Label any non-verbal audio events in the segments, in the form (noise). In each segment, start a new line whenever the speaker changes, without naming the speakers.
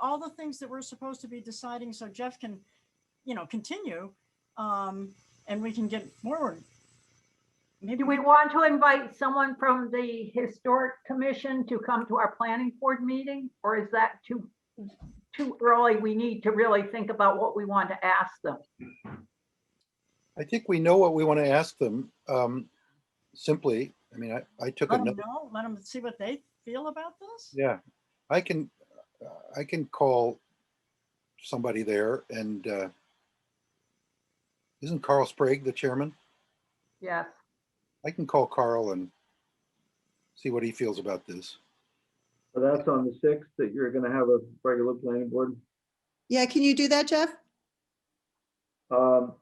all the things that we're supposed to be deciding so Jeff can, you know, continue. Um, and we can get forward. Maybe
Do we
we,
want to invite someone from the Historic Commission to come to our planning board meeting? Or is that too, too early? We need to really think about what we want to ask them.
I think we know what we want to ask them, um, simply, I mean, I, I took a,
let them
note.
know, let them see what they feel about this.
yeah, I can, uh, I can call somebody there and, uh, isn't Carl Sprague the chairman?
Yes.
I can call Carl and see what he feels about this.
So that's on the sixth, that you're gonna have a regular planning board.
Yeah, can you do that, Jeff?
Um,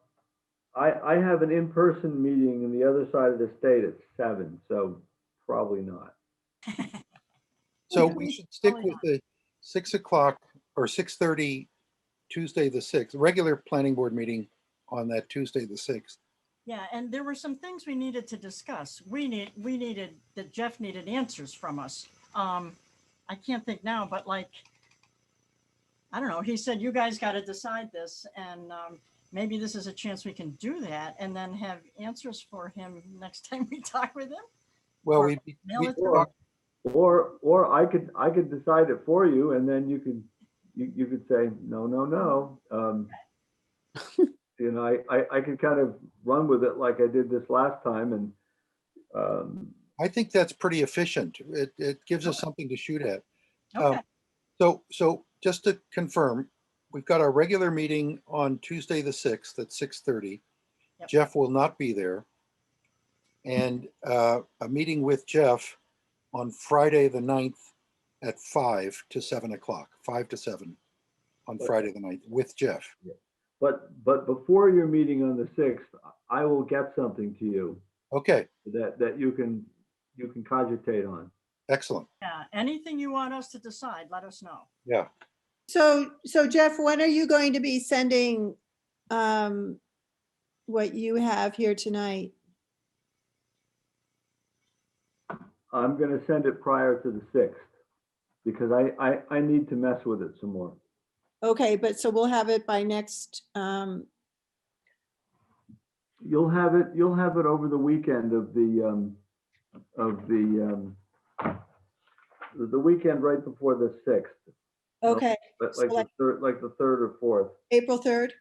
I, I have an in-person meeting in the other side of the state at seven, so probably not.
So
Yeah.
we should stick
Probably
with the six o'clock or six thirty, Tuesday the sixth, regular planning board meeting on that Tuesday the sixth.
Yeah, and there were some things we needed to discuss. We need, we needed, that Jeff needed answers from us. Um, I can't think now, but like, I don't know, he said, you guys got to decide this and, um, maybe this is a chance we can do that and then have answers for him next (laughs) time we talk with him.
Well,
Or
we, we
mail it to
talked-
Or, or I could, I could decide it for you and then you could, you, you could say, no, no, no. Um, You know, I, I, I could kind of run with it like I did this last time and, um,
I think that's pretty efficient. It, it gives us something to shoot at. Um,
Okay,
So, so just to confirm, we've got our regular meeting on Tuesday, the sixth at six thirty.
Yep.
Jeff will not be there. And uh, a meeting with Jeff on Friday, the 9th at five to seven o'clock, five to seven on
Okay.
Friday, the 9th with Jeff.
but, but before your meeting on the sixth, I will get something to you
Okay,
that, that you can, you can cogitate on.
excellent.
yeah, anything you want us to decide, let us know.
Yeah.
So, so Jeff, when are you going to be sending um what you have here tonight?
I'm gonna send it prior to the sixth, because I, I, I need to mess with it some more.
Okay, but so we'll have it by next, um
You'll have it, you'll have it over the weekend of the, um, of the, um, the the weekend right before the sixth,
okay,
but
So
like the
like-
third, like the third or fourth.
April 3rd?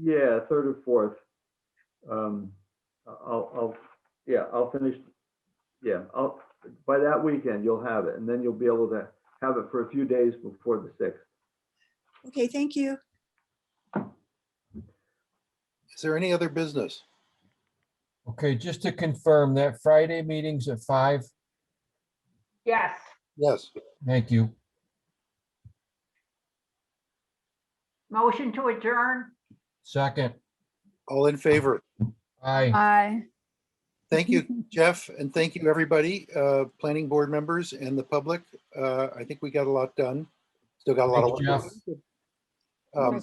Yeah, third or fourth. Um, I'll, I'll, yeah, I'll finish, yeah, I'll, by that weekend, you'll have it, and then you'll be able to have it for a few days before the sixth.
Okay, thank you.
Is there any other business?
Okay, just to confirm that Friday meeting's at five.
Yes.
Yes,
Thank you.
Motion to adjourn?
Second,
all in favor.
aye.
Aye.
Thank you, Jeff, and thank you, everybody, uh, planning board members and the public. Uh, I think we got a lot done. Still got a lot of.
Thank you,
work. to do. Um,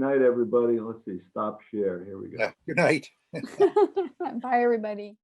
(laughs)
night, everybody. Let's see, stop share. Here we go.
yeah, Good night.
(laughs) Bye, everybody.